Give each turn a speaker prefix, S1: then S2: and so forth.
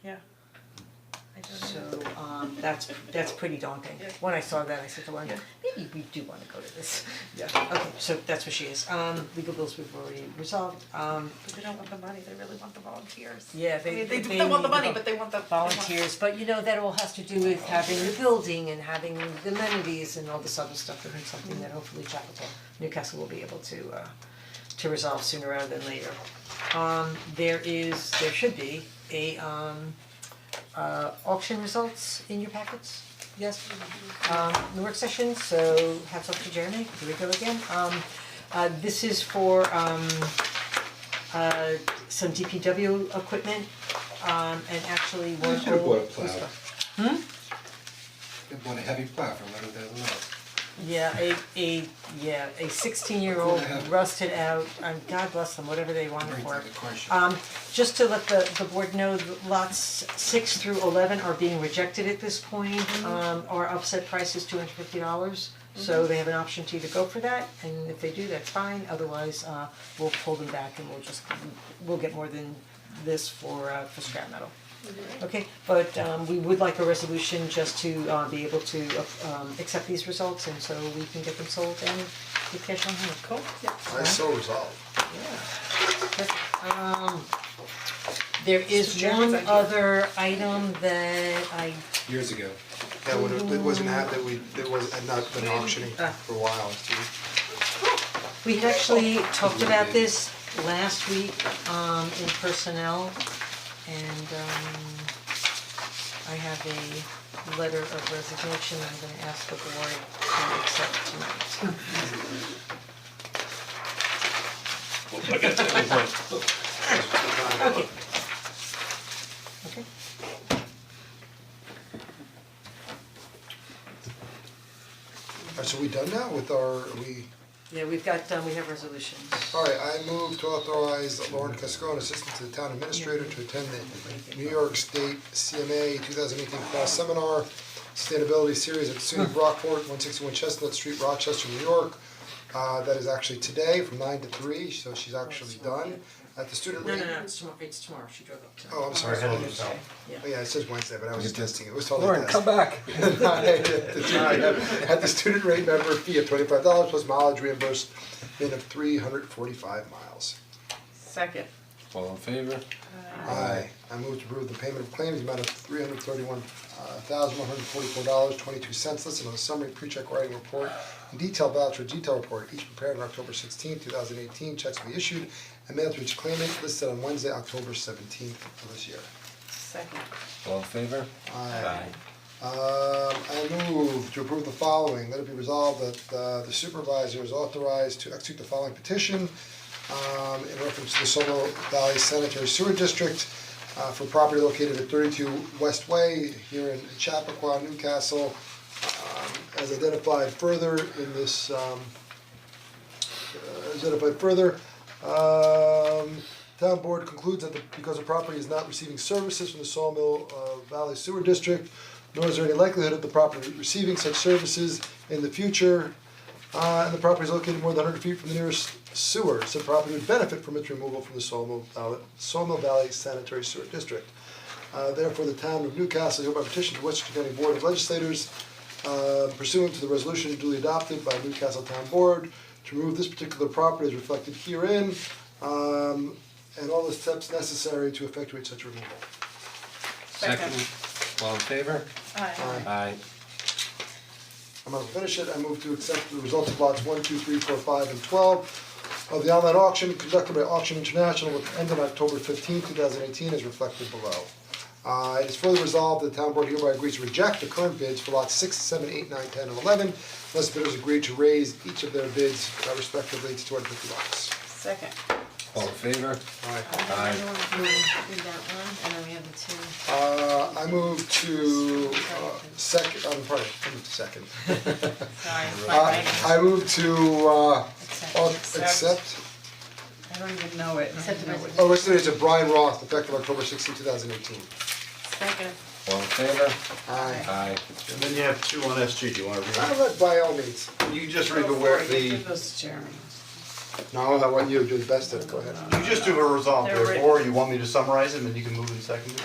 S1: um, that's that's pretty daunting. When I saw that, I said to London, maybe we do wanna go to this. Yeah. Okay, so that's what she is. Um legal bills we've already resolved. Um
S2: But they don't want the money, they really want the volunteers.
S1: Yeah,
S2: I
S1: they-
S2: mean, they
S1: they
S2: they want the
S1: need the
S2: money, but they want the they want-
S1: volunteers, but you know, that all has to do with having the building and having the amenities and all this other stuff, and it's something that hopefully Chapel Newcastle will be able to uh to resolve sooner rather than later. Um there is, there should be a um uh auction results in your packets, yes? Um the work session, so hats off to Jeremy, here we go again, um uh this is for um uh some DPW equipment, um and actually one
S3: You
S1: old.
S3: should have bought a plow.
S1: police car.
S3: They want a heavy plow for eleven thousand dollars.
S1: Yeah, a a yeah, a sixteen year old rusted out, um God bless them, whatever they wanted
S3: Brings
S1: for
S3: up
S1: it.
S3: the question.
S1: Um just to let the the board know, that lots six through eleven are being rejected at this point. Um our upset price is two hundred fifty dollars, so they have an option to either go for that, and if they do, that's fine, otherwise uh we'll pull them back and we'll just, we'll get more than this for uh for scrap metal. Okay, but um we would like a resolution just to uh be able to uh, um accept these results and so we can get them sold and get cash on hand, cool?
S4: I so resolved.
S1: Perfect. Um there is
S2: Jeremy's
S1: one
S2: idea.
S1: other item that I
S3: Years ago,
S4: Yeah, when it, it wasn't had that we, that was, had not been auctioning
S1: Ah.
S4: for a while,
S1: We had actually talked about this last week um in personnel and um I have a letter of resignation I'm gonna ask the board to accept tonight. Okay. Okay.
S4: Alright, so we done now with our, are we,
S1: Yeah, we've got, um, we have resolutions.
S4: alright, I move to authorize Lauren Cascone, Assistant to the Town Administrator, to attend the New York State CMA two thousand eighteen class seminar, Sustainability Series at SUNY Brockport, one sixty-one Chestnut Street, Rochester, New York. Uh, that is actually today from nine to three, so she's actually done at the student
S1: No,
S4: rate.
S1: no, no, it's tomorrow, it's tomorrow, she drove up tonight.
S4: Oh, I'm sorry, I didn't-
S1: Yeah.
S4: Oh, Yeah, it says Wednesday, but I was testing, it It was totally
S3: Lauren,
S4: tested.
S3: come back.
S4: At the student rate member fee of twenty-five dollars plus mileage reimbursement of three hundred forty-five miles.
S2: Second.
S5: All in favor?
S4: Aye. I move to approve the payment of claims, in the amount of three hundred thirty-one thousand one hundred forty-four dollars, twenty-two cents, listed on the summary pre-check writing report and detailed voucher detail report, each prepared on October sixteenth, two thousand eighteen, checks will be issued and mailed to each claimant, listed on Wednesday, October seventeenth of this year.
S2: Second.
S5: All in favor?
S4: Aye. Um, I move to approve the following, let it be resolved that uh, the supervisor is authorized to execute the following petition um, in reference to the Solo Valley Sanitary Sewer District uh, for property located at thirty-two West Way here in Chappaqua, Newcastle, um, as identified further in this, um, uh, as identified further. Um, town board concludes that the, because the property is not receiving services from the Sawmill uh, Valley Sewer District, nor is there any likelihood of the property receiving such services in the future, uh, and the property is located more than hundred feet from the nearest sewer, so the property would benefit from its removal from the Sawmill Valley, Sawmill Valley Sanitary Sewer District. Uh, therefore, the town of Newcastle hereby petition to Westchester County Board of Legislators uh, pursuant to the resolution duly adopted by Newcastle Town Board to remove this particular property as reflected herein, um, and all the steps necessary to effectuate such removal.
S2: Second.
S5: All in favor?
S2: Aye.
S5: Aye.
S4: I'm gonna finish it, I move to accept the results of lots one, two, three, four, five, and twelve of the online auction conducted by Auction International with end on October fifteenth, two thousand eighteen, as reflected below. Uh, it is further resolved that the town board hereby agrees to reject the current bids for lots six, seven, eight, nine, ten, and eleven, unless bidders agree to raise each of their bids uh, respectively to two hundred fifty dollars.
S2: Second.
S5: All in favor? Aye.
S4: Uh, I move to, uh, second, I'm sorry, I'm second.
S2: Sorry, it's my
S4: Uh,
S2: writing.
S4: I move to, uh, au- accept
S2: I don't even know it. Accept the
S4: Oh, what's the name, it's a Brian Roth, effective October 16, thousand eighteen.
S2: Second.
S5: All in favor?
S4: Aye.
S5: Aye.
S6: And then you have two on SG, do you wanna read?
S4: I let by all means.
S6: You just read the where the,
S2: Give
S6: you
S2: those to Jeremy.
S4: No, I want you to do the best at it, go ahead.
S6: just do a resolve
S2: They're
S6: there,
S2: written.
S6: or you want me to summarize them and you can move in second?